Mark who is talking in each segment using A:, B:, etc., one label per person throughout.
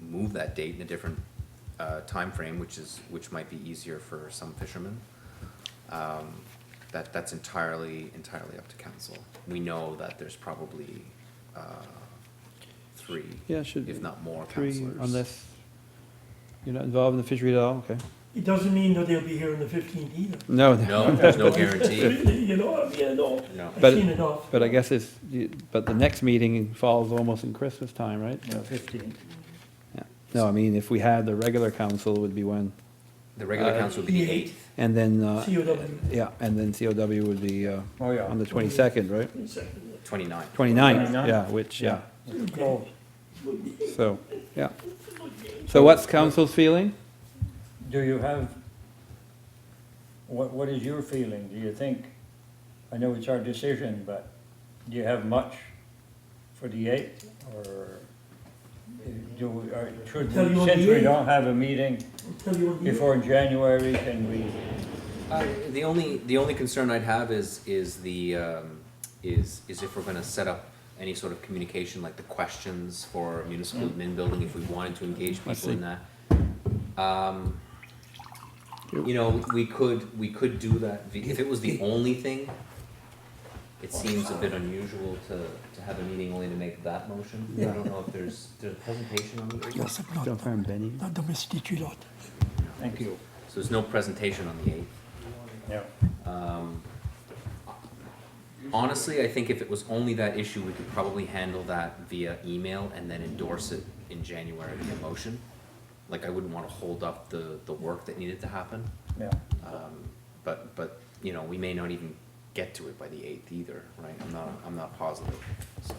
A: move that date in a different uh, frame, which is, which might be easier for some fishermen. Um, That, that's entirely, entirely up to council. We know that there's probably uh, three,
B: Yeah, should.
A: if not more
B: Three,
A: councilors.
B: unless you're not involved in the fishery at all, okay.
C: It doesn't mean that they'll be here on the fifteenth either.
B: No,
A: No, there's no guarantee,
C: You know, I mean, I know,
A: no.
C: I've
B: But-
C: seen enough.
B: but I guess it's, you- but the next meeting falls almost in Christmas time, right?
D: No, fifteenth.
B: Yeah. No, I mean, if we had the regular council would be when,
A: The regular
B: Uh,
A: council would be the
C: The
A: eighth.
B: and then, uh,
C: COW.
B: yeah, and then COW would be, uh,
D: Oh, yeah.
B: on the twenty-second, right?
C: Second.
A: Twenty-nine.
B: Twenty-ninth,
D: 29th?
B: yeah, which, yeah,
D: Close.
B: so, yeah. So what's council's feeling?
D: Do you have, what, what is your feeling? Do you think, I know it's our decision, but do you have much for the eighth? Or do, we- or should,
C: Tell you
D: we-
C: on
D: since
C: the
D: we
C: 8th.
D: don't have a meeting
C: Tell you what, the-
D: before January, can we?
A: I- Uh, The only, the only concern I'd have is, is the, um, is, is if we're gonna set up any sort of communication, like the questions for
D: Mm.
A: municipal admin building, if we wanted to engage
B: I
A: people in that. Um, you know, we could, we could do that, vi- if it was the only thing, it seems a bit unusual to, to have a meeting only to make that motion. I don't know if there's, there's a presentation on the eighth,
B: Don't harm Benny.
C: la domesticulate.
D: Thank you.
A: so there's no presentation on the eighth.
D: Yeah.
A: Um, Honestly, I think if it was only that issue, we could probably handle that via email and then endorse it in January via motion. Like, I wouldn't wanna hold up the, the work that needed to happen,
D: Yeah,
A: um, but, but, you know, we may not even get to it by the eighth either, right? I'm not, I'm not positive, so.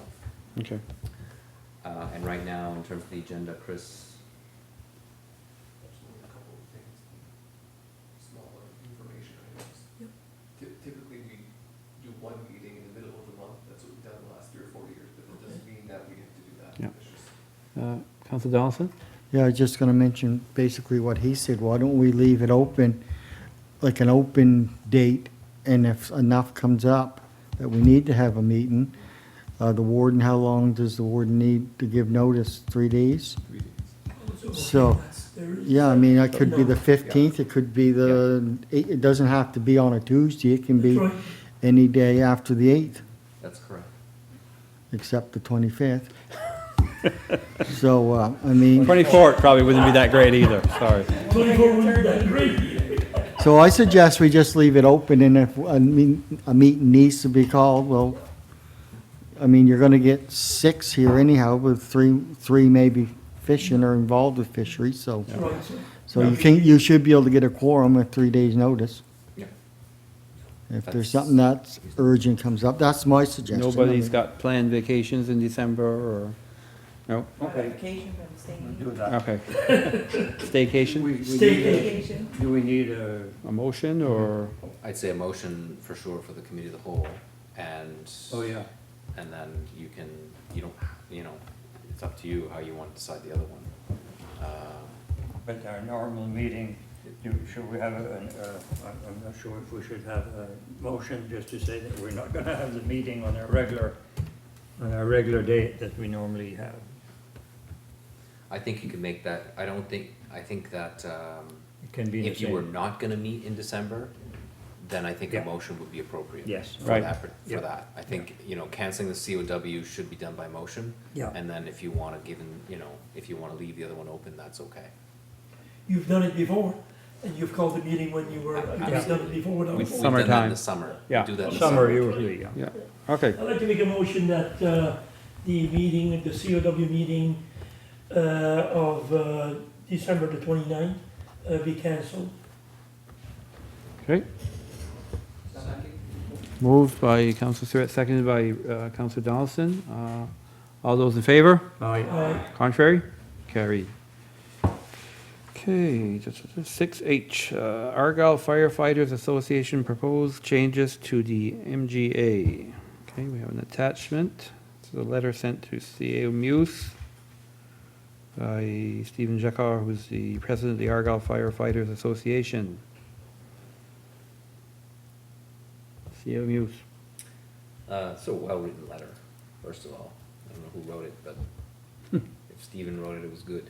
B: Okay.
A: Uh, and right now, in terms of the agenda, Chris,
E: Absolutely, a couple of things, smaller information items. Yep. Typically, we do one meeting in the middle of the month, that's what we've done the last three or four years, but it doesn't mean that we have to do that.
B: Yeah.
E: It's just-
B: Uh, Council Donaldson?
F: Yeah, I was just gonna mention basically what he said, why don't we leave it open, like an open date, and if enough comes up that we need to have a meeting, uh, the warden, how long does the warden need to give notice, three days? So,
C: There is-
F: yeah, I mean, it could be the fifteenth, it could be the, it, it doesn't have to be on a Tuesday, it can be
C: That's right.
F: any day after the eighth,
A: that's correct.
F: except the twenty-fifth. So, uh, I mean.
B: Twenty-fourth probably wouldn't be that great either, sorry.
C: Twenty-four would be that great.
F: So I suggest we just leave it open, and if a meet- a meeting needs to be called, well, I mean, you're gonna get six here anyhow, with three, three maybe fishing or involved with fisheries, so.
C: That's right, sir.
F: So you can, you should be able to get a quorum with three days' notice.
A: Yeah.
F: If there's something that's urgent comes up, that's my suggestion. I
B: Nobody's
F: mean,
B: got planned vacations in December or, no?
D: okay,
G: Vacation from
D: we'll
G: staying.
D: do that.
B: Okay.
D: We-
B: Staycation?
D: we
C: Stay-
D: need-
G: Vacation.
D: Do we need a,
B: A motion or,
A: I'd say a motion for sure for the committee of the whole, and.
D: oh, yeah.
A: and then you can, you don't, you know, it's up to you how you want to decide the other one. Uh,
D: But our normal meeting, do- should we have, a- an, uh, I'm I'm not sure if we should have a motion just to say that we're not going to have the meeting on our regular, on our regular date that we normally have.
A: I think you can make that, I don't think, I think that, um,
D: It can be the
A: if you were
D: same.
A: not gonna meet in December, then I think a
D: Yeah.
A: motion would be appropriate.
D: Yes.
A: For
B: Right.
A: that, per-
D: Yeah.
A: for that. I think, you know, canceling the COW should be done by motion.
D: Yeah.
A: And then if you wanna give, in- you know, if you wanna leave the other one open, that's okay.
C: You've done it before, and you've called the meeting when you were, you've done it
A: Absolutely.
C: before. when I
A: We've-
C: was-
A: We've done that in
B: Summertime.
A: the summer. We
B: Yeah.
A: Do that in the
D: Summer
A: summer.
D: usually, yeah.
B: yeah, okay.
C: I'd like to make a motion that uh, the meeting, the COW meeting uh, of uh, December the 29th uh, be canceled.
B: Okay. Moved by Council Stewart, seconded by uh, Council Donaldson. Uh, All those in favor?
D: Oh,
C: Uh,
B: Contrary? Carried. Okay, six H, uh, Argyle Firefighters Association proposed changes to the MGA. Okay, we have an attachment to the letter sent to CAO Muse by Stephen Jacquard, who's the president of the Argyle Firefighters Association. CAO Muse.
A: Uh, it's a well-written letter, first of all. I don't know who wrote it, but if Stephen wrote it, it was good.